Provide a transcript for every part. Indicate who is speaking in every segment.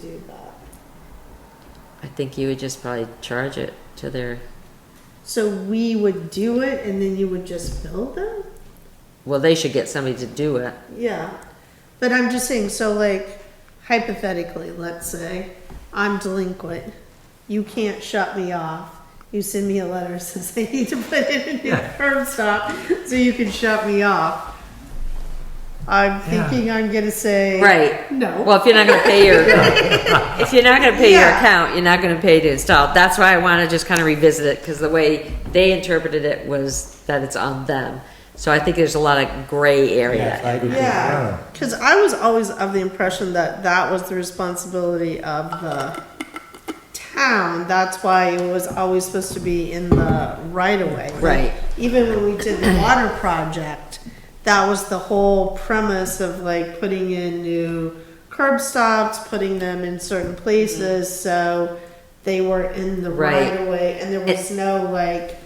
Speaker 1: do that.
Speaker 2: I think you would just probably charge it to their,
Speaker 1: So we would do it and then you would just build them?
Speaker 2: well, they should get somebody to do it.
Speaker 1: Yeah. But I'm just saying, so like hypothetically, let's say I'm delinquent. You can't shut me off. You send me a letter that says I need to put in a new curb stop so you can shut me off. I'm thinking I'm gonna say
Speaker 2: Right.
Speaker 1: No.
Speaker 2: Well, if you're not gonna pay your, if you're not gonna pay your
Speaker 1: Yeah.
Speaker 2: account, you're not gonna pay to install. That's why I wanna just kinda revisit it, cause the way they interpreted it was that it's on them. So I think there's a lot of gray
Speaker 3: Yes, I
Speaker 2: area.
Speaker 3: do too.
Speaker 1: Yeah, because I was always of the impression that that was the responsibility of the town. That's why it was always supposed to be in the right of way.
Speaker 2: Right.
Speaker 1: Even when we did the water project, that was the whole premise of like putting in new curb stops, putting them in certain places, so they were in the
Speaker 2: Mm-hmm. Right.
Speaker 1: right of way, and there was no like,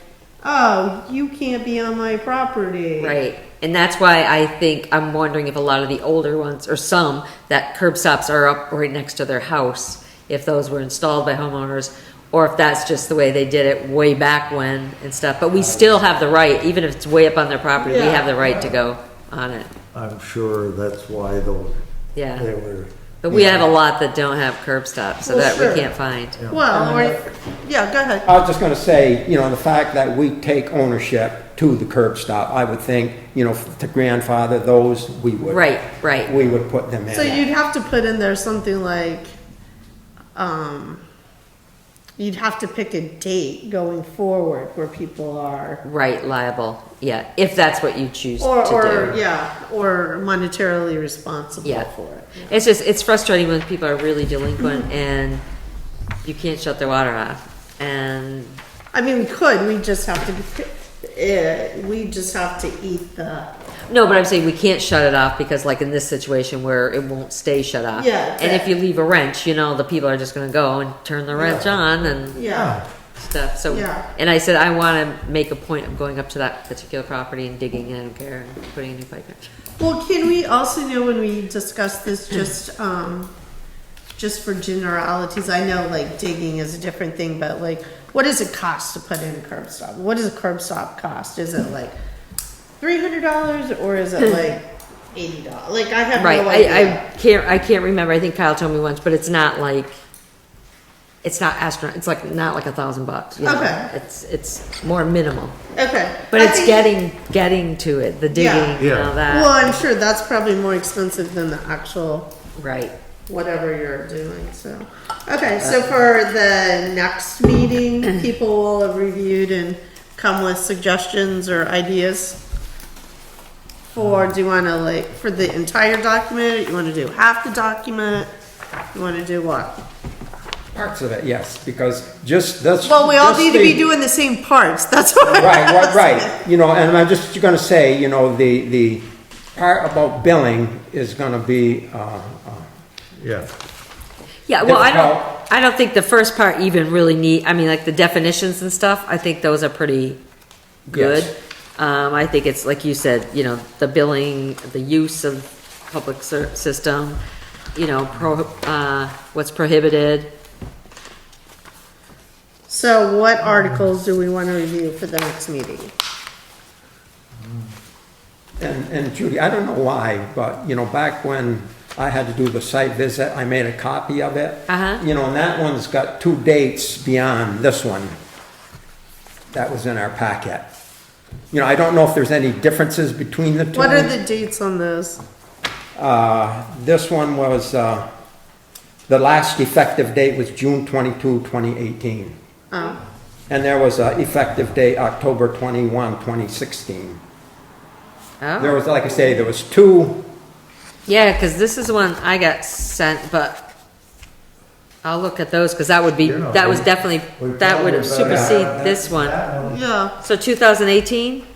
Speaker 1: oh, you can't be on my property.
Speaker 2: Right. And that's why I think, I'm wondering if a lot of the older ones, or some, that curb stops are up right next to their house, if those were installed by homeowners, or if that's just the way they did it way back when and stuff. But we still have the right, even if it's way up on their property, we
Speaker 1: Yeah.
Speaker 2: have the right to go on it.
Speaker 4: I'm sure that's why those, they
Speaker 2: Yeah.
Speaker 4: were.
Speaker 2: But we have a lot that don't have curb stops, so
Speaker 1: Well,
Speaker 2: that
Speaker 1: sure.
Speaker 2: we can't find.
Speaker 1: Well, or, yeah, go ahead.
Speaker 3: I was just gonna say, you know, the fact that we take ownership to the curb stop, I would think, you know, to grandfather those, we would.
Speaker 2: Right, right.
Speaker 3: We would put them in.
Speaker 1: So you'd have to put in there something like, um, you'd have to pick a date going forward where people are.
Speaker 2: Right, liable. Yeah, if that's what you choose to do.
Speaker 1: Or, or, yeah, or monetarily responsible
Speaker 2: Yeah.
Speaker 1: for it.
Speaker 2: It's just, it's frustrating when people are really
Speaker 1: Mm-hmm.
Speaker 2: delinquent and you can't shut their water off. And,
Speaker 1: I mean, we could, we just have to, uh, we just have to eat the,
Speaker 2: no, but I'm saying we can't shut it off because like in this situation where it won't stay shut off.
Speaker 1: Yeah,
Speaker 2: And if
Speaker 1: yeah.
Speaker 2: you leave a wrench, you know, the people are just gonna go and turn the wrench on and
Speaker 1: yeah,
Speaker 2: stuff, so.
Speaker 1: Yeah.
Speaker 2: And I said, I wanna make a point of going up to that particular property and digging in and care and putting a new pipe in.
Speaker 1: Well, can we also know when we discuss this, just, um, just for generalities, I know like digging is a different thing, but like, what does it cost to put in a curb stop? What does a curb stop cost? Is it like three hundred dollars or is it like eighty dollars? Like, I have
Speaker 2: Right,
Speaker 1: no idea.
Speaker 2: I, I can't, I can't remember, I think Kyle told me once, but it's not like, it's not astronaut, it's like, not like a thousand bucks. you know?
Speaker 1: Okay.
Speaker 2: It's, it's more minimal,
Speaker 1: Okay.
Speaker 2: but
Speaker 1: I
Speaker 2: it's
Speaker 1: think-
Speaker 2: getting, getting to it, the digging and
Speaker 4: Yeah.
Speaker 2: all that,
Speaker 1: Well, I'm sure that's probably more expensive than the actual
Speaker 2: right.
Speaker 1: whatever you're doing, so. Okay, so for the next meeting, people will have reviewed and come with suggestions or ideas? Or do you wanna like, for the entire document, you wanna do half the document? You wanna do what?
Speaker 3: Parts of it, yes, because just this.
Speaker 1: Well, we all
Speaker 3: this
Speaker 1: need to be
Speaker 3: thing-
Speaker 1: doing the same parts, that's what. I'm
Speaker 3: Right, right,
Speaker 1: asking.
Speaker 3: right. You know, and I'm just gonna say, you know, the, the part about billing is gonna be, uh, uh,
Speaker 4: Yeah,
Speaker 2: Yeah, well, I
Speaker 3: Difficult.
Speaker 2: don't, I don't think the first part even really need, I mean, like the definitions and stuff, I think those are pretty good.
Speaker 3: Yes.
Speaker 2: Um, I think it's, like you said, you know, the billing, the use of public ser- system, you know, pro, uh, what's prohibited.
Speaker 1: So what articles do we wanna review for the next meeting?
Speaker 3: And, and Judy, I don't know why, but, you know, back when I had to do the site visit, I made a copy of it.
Speaker 2: Uh-huh.
Speaker 3: You know, and that one's got two dates beyond this one. That was in our packet. You know, I don't know if there's any differences between the two.
Speaker 1: What are the dates on those?
Speaker 3: Uh, this one was, uh, the last effective date was June 22, 2018.
Speaker 1: Oh,
Speaker 3: And there was an effective date, October 21, 2016. There
Speaker 2: Oh,
Speaker 3: was, like I say, there was two
Speaker 2: yeah, cause this is one I got sent, but I'll look at those, cause that would be,
Speaker 4: Yeah,
Speaker 2: that was
Speaker 4: we-
Speaker 2: definitely,
Speaker 4: we
Speaker 2: that
Speaker 4: probably
Speaker 2: would
Speaker 4: better
Speaker 2: supersede
Speaker 4: have
Speaker 2: this
Speaker 4: that-
Speaker 2: one.
Speaker 4: that
Speaker 1: yeah,
Speaker 2: So two thousand eighteen?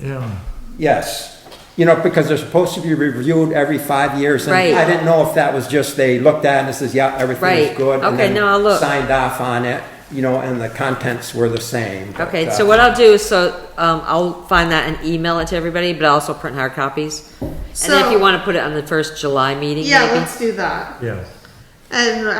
Speaker 4: Yeah,
Speaker 3: Yes, you know, because they're supposed to be reviewed every five years. and
Speaker 2: Right.
Speaker 3: I didn't know if that was just they looked at it and says, yeah, everything
Speaker 2: Right.
Speaker 3: is good. and
Speaker 2: Okay,
Speaker 3: then
Speaker 2: now I'll look.
Speaker 3: Signed off on it, you know, and the contents were the same. but,
Speaker 2: Okay,
Speaker 3: uh,
Speaker 2: so what I'll do is, so, um, I'll find that and email it to everybody, but I'll also print hard copies. And then if
Speaker 1: So-
Speaker 2: you wanna put it on the first July meeting,
Speaker 1: yeah,
Speaker 2: maybe.
Speaker 1: let's do that.
Speaker 4: yeah.
Speaker 1: And